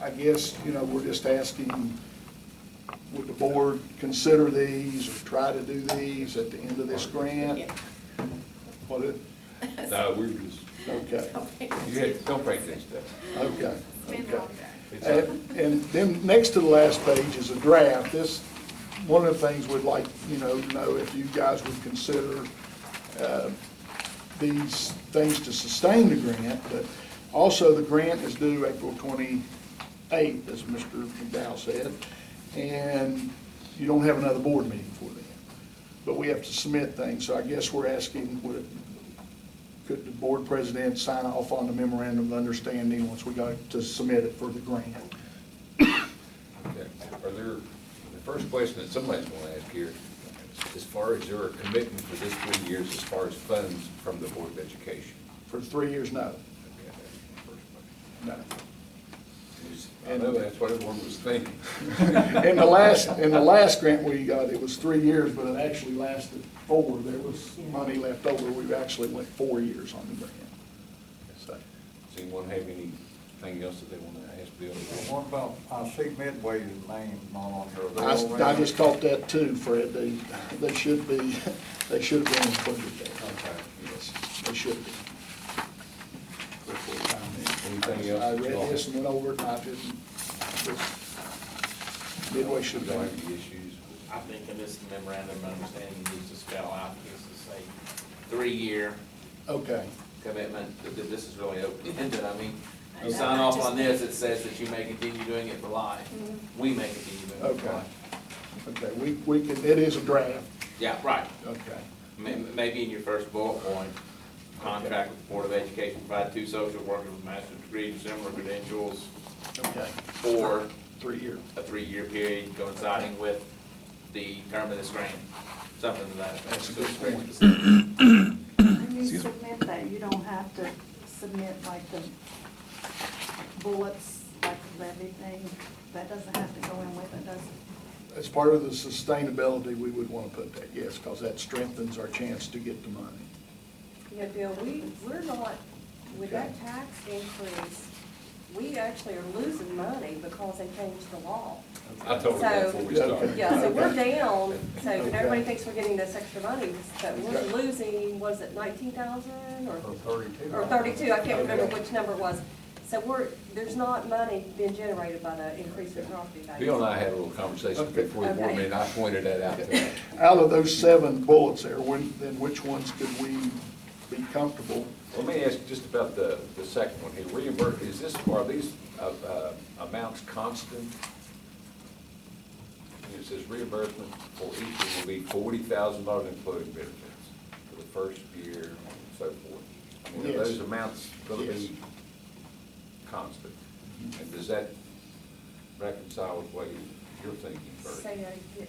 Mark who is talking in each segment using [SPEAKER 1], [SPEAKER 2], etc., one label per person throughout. [SPEAKER 1] I guess, you know, we're just asking, would the board consider these or try to do these at the end of this grant?
[SPEAKER 2] Yeah.
[SPEAKER 1] What it,
[SPEAKER 3] No, we're just,
[SPEAKER 1] okay,
[SPEAKER 3] you had, don't break this stuff.
[SPEAKER 1] okay,
[SPEAKER 2] Been
[SPEAKER 1] okay. Uh,
[SPEAKER 2] long day.
[SPEAKER 3] It's a-
[SPEAKER 1] And and then, next to the last page is a draft. This, one of the things we'd like, you know, to know if you guys would consider uh, these things to sustain the grant, but also the grant is due April 28th, as Mr. McDowell said, and you don't have another board meeting for that. But we have to submit things, so I guess we're asking, would it could the board president sign off on the memorandum of understanding once we go to submit it for the grant?
[SPEAKER 3] Okay. Are there, the first question that somebody's gonna ask here, as far as there a commitment for this three years as far as funds from the Board of Education?
[SPEAKER 1] For three years, no,
[SPEAKER 3] Okay, that's the first question.
[SPEAKER 1] no.
[SPEAKER 3] Is- I know that's what everyone was thinking.
[SPEAKER 1] In the last, in the last grant we got, it was three years, but it actually lasted four. There was money left over. We actually went four years on the grant. So,
[SPEAKER 3] Does anyone have anything else that they wanna ask Bill?
[SPEAKER 4] What about, I see Midway's name not on here. They
[SPEAKER 1] I,
[SPEAKER 4] already-
[SPEAKER 1] I just caught that too, Fred. They, they should be, they should have been included there.
[SPEAKER 4] Okay.
[SPEAKER 1] Yes, they should be.
[SPEAKER 3] Anything else?
[SPEAKER 1] I read this and went over it, and I didn't, Midway should have
[SPEAKER 3] Don't
[SPEAKER 1] done
[SPEAKER 3] have any
[SPEAKER 1] it.
[SPEAKER 3] issues?
[SPEAKER 5] I think in this memorandum of understanding, you need to spell out, just to say, three-year
[SPEAKER 1] Okay,
[SPEAKER 5] commitment, that that this is really open-ended, I mean,
[SPEAKER 2] I
[SPEAKER 5] you
[SPEAKER 2] know,
[SPEAKER 5] sign
[SPEAKER 2] I
[SPEAKER 5] off
[SPEAKER 2] just-
[SPEAKER 5] on this, it says that you may continue doing it for life. We may continue doing it for
[SPEAKER 1] okay,
[SPEAKER 5] life.
[SPEAKER 1] okay, we, we can, it is a draft,
[SPEAKER 5] Yeah, right.
[SPEAKER 1] okay,
[SPEAKER 5] May- Maybe in your first bullet point, contract with the Board of Education, provide two social workers with master's degrees, similar credentials,
[SPEAKER 1] okay,
[SPEAKER 5] for
[SPEAKER 1] three-year,
[SPEAKER 5] a three-year period coinciding with the term of this grant, something to that. effect.
[SPEAKER 1] That's a good
[SPEAKER 5] So it's
[SPEAKER 1] point.
[SPEAKER 5] very specific.
[SPEAKER 6] When you submit that, you don't have to submit like the bullets, like levy thing. That doesn't have to go in with it, does it?
[SPEAKER 1] as part of the sustainability, we would want to put that, yes, because that strengthens our chance to get the money.
[SPEAKER 7] Yeah, Bill, we, we're not, with that tax increase, we actually are losing money because they changed the law.
[SPEAKER 3] I told her that before we started.
[SPEAKER 7] Yeah, so we're
[SPEAKER 1] Okay.
[SPEAKER 7] down, so
[SPEAKER 1] Okay.
[SPEAKER 7] everybody thinks we're getting this extra money, but we're
[SPEAKER 1] Okay.
[SPEAKER 7] losing, was it nineteen thousand or?
[SPEAKER 4] Or thirty-two.
[SPEAKER 7] Or thirty-two, I can't remember
[SPEAKER 1] Okay.
[SPEAKER 7] which number it was. So we're, there's not money being generated by the increase in property value.
[SPEAKER 3] Bill and I had a little conversation
[SPEAKER 1] Okay.
[SPEAKER 3] before the board
[SPEAKER 7] Okay.
[SPEAKER 3] meeting, I pointed that out to her.
[SPEAKER 1] Out of those seven bullets there, when, then which ones could we be comfortable?
[SPEAKER 3] Let me ask just about the, the second one here, reimburse, is this, are these, uh, uh, amounts constant? It says reimbursement for each will be forty thousand dollars including benefits for the first year and so forth. I mean, are
[SPEAKER 1] Yes.
[SPEAKER 3] those amounts gonna
[SPEAKER 1] Yes.
[SPEAKER 3] be constant? And does that reconcile with what you- you're thinking first?
[SPEAKER 7] Say that again.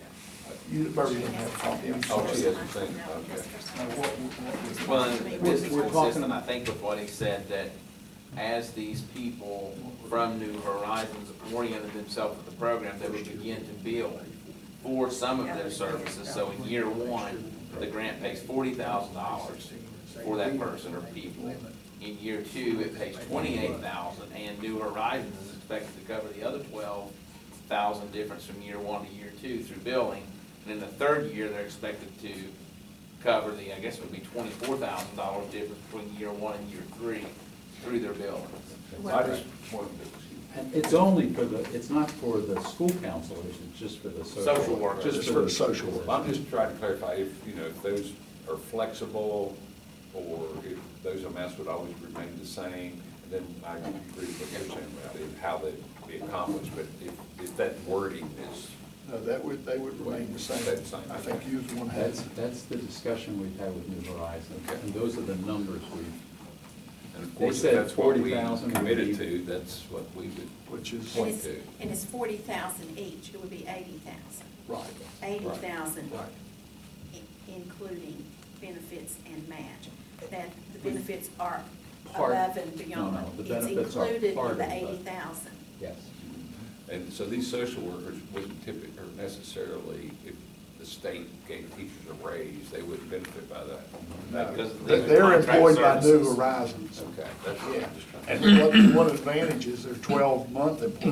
[SPEAKER 1] You, Barbie, you don't have a copy, I'm
[SPEAKER 3] Oh, she
[SPEAKER 1] sorry.
[SPEAKER 3] has a thing, okay.
[SPEAKER 5] Well, and this is
[SPEAKER 1] We're- we're talking
[SPEAKER 5] consistent, I think, with what he said, that as these people from New Horizons oriented themselves with the program, they would begin to build for some of their services. So in year one, the grant pays forty thousand dollars for that person or people. In year two, it pays twenty-eight thousand, and New Horizons is expected to cover the other twelve thousand difference from year one to year two through billing. And in the third year, they're expected to cover the, I guess it would be twenty-four thousand dollar difference between year one and year three through their billings.
[SPEAKER 3] I just wanted to,
[SPEAKER 8] And it's only for the, it's not for the school counselors, it's just for the social.
[SPEAKER 5] Social workers.
[SPEAKER 1] Just for the social work.
[SPEAKER 3] Well, I'm just trying to clarify if, you know, if those are flexible or if those amounts would always remain the same, then I agree with what you're saying about it, how they'd be accomplished, but if, if that wording is,
[SPEAKER 1] No, that would, they would remain the same.
[SPEAKER 3] That's the same.
[SPEAKER 1] I think you one
[SPEAKER 8] That's,
[SPEAKER 1] has.
[SPEAKER 8] that's the discussion we've had with New Horizons,
[SPEAKER 3] Okay.
[SPEAKER 8] and those are the numbers we,
[SPEAKER 3] and of
[SPEAKER 8] They
[SPEAKER 3] course, if
[SPEAKER 8] said
[SPEAKER 3] that's what we
[SPEAKER 8] 40,000 would
[SPEAKER 3] committed
[SPEAKER 8] be-
[SPEAKER 3] to, that's what we would
[SPEAKER 1] Which is,
[SPEAKER 2] And
[SPEAKER 3] point
[SPEAKER 2] it's,
[SPEAKER 3] to.
[SPEAKER 2] and it's forty thousand each, it would be eighty thousand.
[SPEAKER 1] right,
[SPEAKER 2] Eighty thousand,
[SPEAKER 1] Right.
[SPEAKER 2] including benefits and match. That, the benefits are
[SPEAKER 8] Part-
[SPEAKER 2] above and
[SPEAKER 8] no,
[SPEAKER 2] beyond.
[SPEAKER 8] no, the benefits are
[SPEAKER 2] It's included
[SPEAKER 8] part
[SPEAKER 2] in
[SPEAKER 8] of
[SPEAKER 2] the
[SPEAKER 8] the-
[SPEAKER 2] eighty thousand.
[SPEAKER 8] yes.
[SPEAKER 3] And so these social workers wouldn't typically, or necessarily, if the state gave teachers a raise, they wouldn't benefit by that.
[SPEAKER 1] no.
[SPEAKER 5] Because
[SPEAKER 1] They-
[SPEAKER 5] the
[SPEAKER 1] They're
[SPEAKER 5] contract
[SPEAKER 1] employed by New
[SPEAKER 5] services.
[SPEAKER 1] Horizons.
[SPEAKER 3] Okay, that's what
[SPEAKER 1] Yeah,
[SPEAKER 3] I'm just trying to.
[SPEAKER 1] and one, one advantage is they're twelve-month employees.